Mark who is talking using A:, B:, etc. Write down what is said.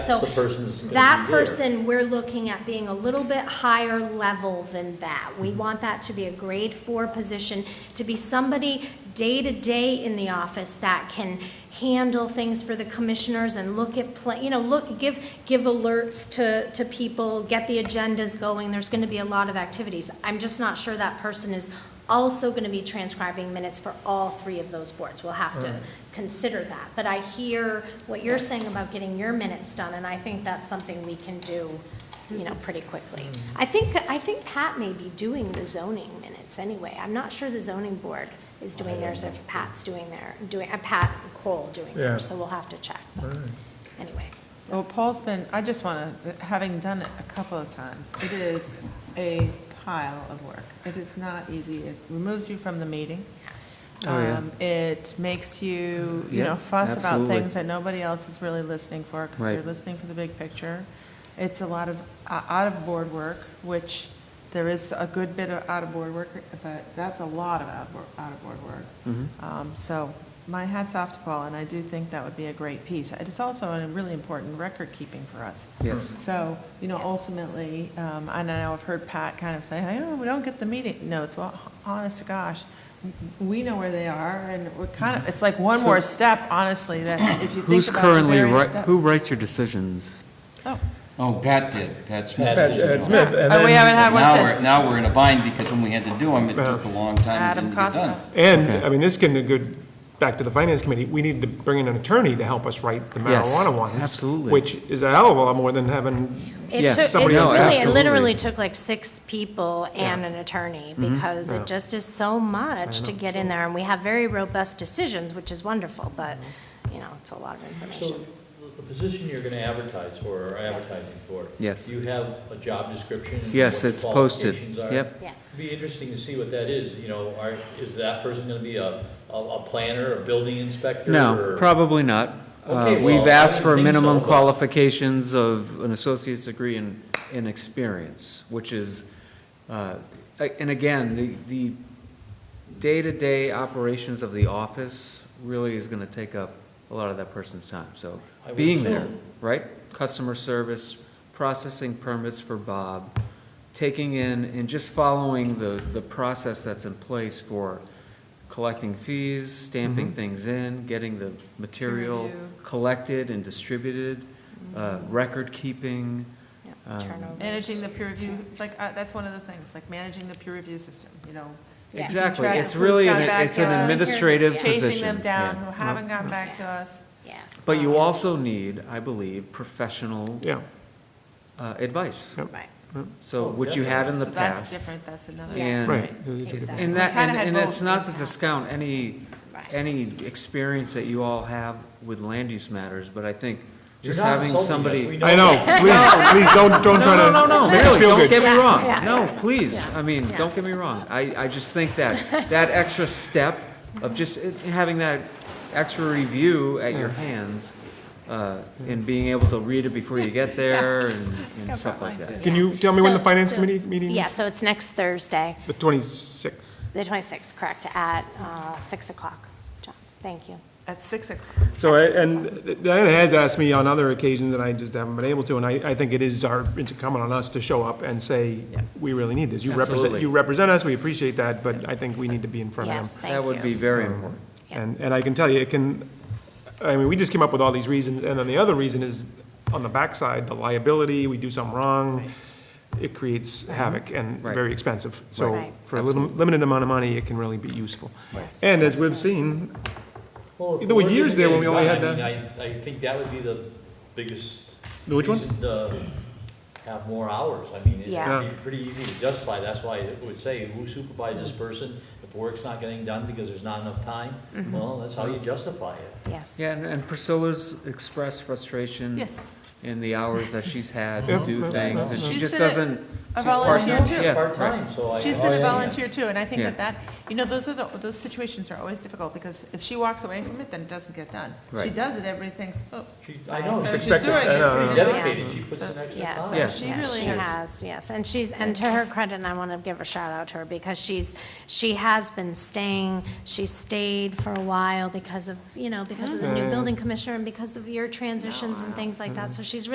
A: So
B: the person's gonna
A: That
B: be there.
A: person, we're looking at being a little bit higher level than that.
B: Mm-hmm.
A: We want that to be a grade four position, to be somebody day-to-day in the office that can handle things for the commissioners and look at, pla- you know, look, give, give alerts to, to people, get the agendas going. There's going to be a lot of activities. I'm just not sure that person is also going to be transcribing minutes for all three of those boards. We'll have to consider that. But I hear what you're saying about getting your minutes done, and I think that's something we can do, you know, pretty quickly. I think, I think Pat may be doing the zoning minutes anyway. I'm not sure the zoning board is doing theirs, if Pat's doing their, doing, uh, Pat Cole doing
C: Yeah.
A: theirs, so we'll have to check. But Anyway, so
D: So Paul's been, I just want to, having done it a couple of times, it is a pile of work. It is not easy. It removes you from the meeting.
C: Oh, yeah.
D: Um, It makes you, you
C: Yeah,
D: know, fuss about
C: absolutely.
D: things that nobody else is really listening for because you're
C: Right.
D: listening for the big picture. It's a lot of uh, out-of-board work, which there is a good bit of out-of-board work, but that's a lot of out-of-board- out-of-board work. Um, So my hat's off to Paul, and I do think that would be a great piece. And It's also a really important record-keeping for us.
C: Yes.
D: So, you know,
A: Yes.
D: ultimately, um, I know I've heard Pat kind of say, I know, we don't get the meeting notes. Well, honest to gosh, we know where they are, and we're kind of, it's like one
C: So-
D: more step, honestly, that if you think
C: Who's
D: about the
C: currently,
D: various
C: wri-
D: steps.
C: who writes your decisions?
D: Oh,
E: Oh, Pat did, Pat Smith.
B: Pat-
E: did.
B: Pat
D: yeah.
B: Smith. and
D: Oh, we
B: then-
D: haven't had
E: Now
D: one
E: we're,
D: since.
E: now we're in a bind because when we had to do them, it took a long time, it
D: Adam
E: didn't get
D: Costa.
E: done.
C: Okay.
F: And, I mean, this can go back to the finance committee, we need to bring in an attorney to help us write the
C: Yes,
F: marijuana ones.
C: absolutely.
F: Which is a hell of a lot more than having,
A: It
C: Yeah,
A: took, it
F: somebody else,
A: really, it
C: absolutely.
A: literally took like six people and an attorney, because
F: Mm-hmm. Yeah.
A: it just is so much to get in there, and we have very robust decisions, which is wonderful, but,
F: Mm-hmm.
A: you know, it's a lot of
B: So
A: information.
B: the- the position you're going to advertise for, or advertising for?
C: Yes.
B: Do you have a job description? and
C: Yes,
B: what the
C: it's posted.
B: qualifications are?
C: Yep.
A: Yes.
B: It'd Be interesting to see what that is, you know, are, is that person going to be a, a a planner, a building inspector?
C: No,
B: or-
C: probably not. Uh,
B: Okay, well,
C: We've
B: I
C: asked
B: would
C: for
B: think
C: minimum
B: so, but-
C: qualifications of an associate's degree in, in experience, which is, uh, a- and again, the, the day-to-day operations of the office really is gonna take up a lot of that person's time, so
B: I would
C: being there,
B: assume.
C: right? Customer service, processing permits for Bob, taking in and just following the, the process that's in place for collecting fees, stamping things in, getting the material
D: Review.
C: collected and distributed, uh,
D: Mm-hmm.
C: record keeping.
A: Yeah,
C: Um,
A: turnovers.
D: Managing the peer review, like, uh, that's one of the things, like managing the peer review system, you know.
A: Yes.
C: Exactly,
D: Track
C: it's
D: who's
C: really,
D: gone
C: an-
D: back
C: it's an
D: to us,
C: administrative
A: Yeah.
C: position.
D: Chasing them down,
C: yeah.
D: who haven't gotten back to
A: Yes,
D: us.
A: Yes.
C: But you also need, I believe, professional
F: yeah,
C: uh, advice,
F: Yep.
A: Right,
C: so,
B: Oh,
C: which you had in the
D: so that's
C: past.
D: different, that's another.
A: Yes.
C: And,
F: right.
A: Exactly.
C: and that,
D: We kinda
C: and
D: had
C: and it's
D: both
C: not
D: in
C: to
D: the past.
C: discount any,
A: right.
C: any experience that you all have with land use matters, but I think
B: You're
C: just
B: not
C: having
B: insulting us,
C: somebody.
B: we
F: I know, please, please, don't, don't try
C: No, no, no,
F: to
C: no,
F: make us
C: really,
F: feel
C: don't get
F: good.
C: me wrong.
A: Yeah,
C: No, please, I mean,
A: yeah.
C: don't get me wrong. I, I just think that, that extra step of just i- having that extra review at your hands uh, and being able to read it before you get there and and stuff like that.
F: Can you tell me when the
A: So-
F: finance
A: so-
F: committee meeting is?
A: Yeah, so it's next Thursday,
F: The twenty-sixth.
A: the 26th, correct, at uh, 6 o'clock. John, thank you.
D: At six o'clock.
F: So, I- and Diana has asked me on other occasions, and I just haven't been able to, and I, I think it is our, it's incumbent on us to show up and say, we really need this. You represent,
C: Absolutely.
F: you represent us, we appreciate that, but I think we need to be in front of them.
A: Yes, thank you.
C: That would be very important.
A: Yeah.
F: And, and I can tell you, it can, I mean, we just came up with all these reasons, and then the other reason is, on the backside, the liability, we do something wrong, it creates havoc and
C: Right.
F: very expensive.
A: Mm-hmm. Right.
F: So for a little, limited amount of money, it can really be useful. And as we've seen,
B: Well, if
F: There were
B: the work
F: years
B: isn't
F: there when
B: getting
F: we only
B: done,
F: had
B: I mean, I, I think that would be the biggest.
F: The which one?
B: reason to Have more hours, I mean,
A: Yeah.
B: it'd be pretty easy to justify, that's why it would say, who supervises this person? If work's not getting done because there's not enough time, well, that's how you justify it.
A: Yes.
C: Yeah, and- and Priscilla's expressed frustration.
D: Yes.
C: In the hours that she's had
F: Yeah,
C: to do
F: yeah,
C: things, and she
D: She's
C: just
D: been a-
C: doesn't.
D: A
C: she's part-time.
D: volunteer too.
C: Yeah,
B: It's
C: right.
B: part-time, so I.
D: She's
B: I-
D: been a volunteer too, and I think
C: Yeah.
D: that that, you know, those are the, those situations are always difficult, because if she walks away from it, then it doesn't get done. She
C: Right.
D: does it, everything's, oh,
B: She, I know,
D: It's
B: she's
D: expected.
B: doing,
D: I
B: she's
D: know,
B: pretty
D: I know.
B: dedicated, she puts in extra
A: Yes,
B: time.
C: Yeah.
A: yes,
D: She really
A: she
D: has.
A: has, yes, and she's, and to her credit, and I want to give a shout out to her, because she's, she has been staying, she stayed for a while because of, you know, because of the new building commissioner and because of your transitions and things like that, so she's really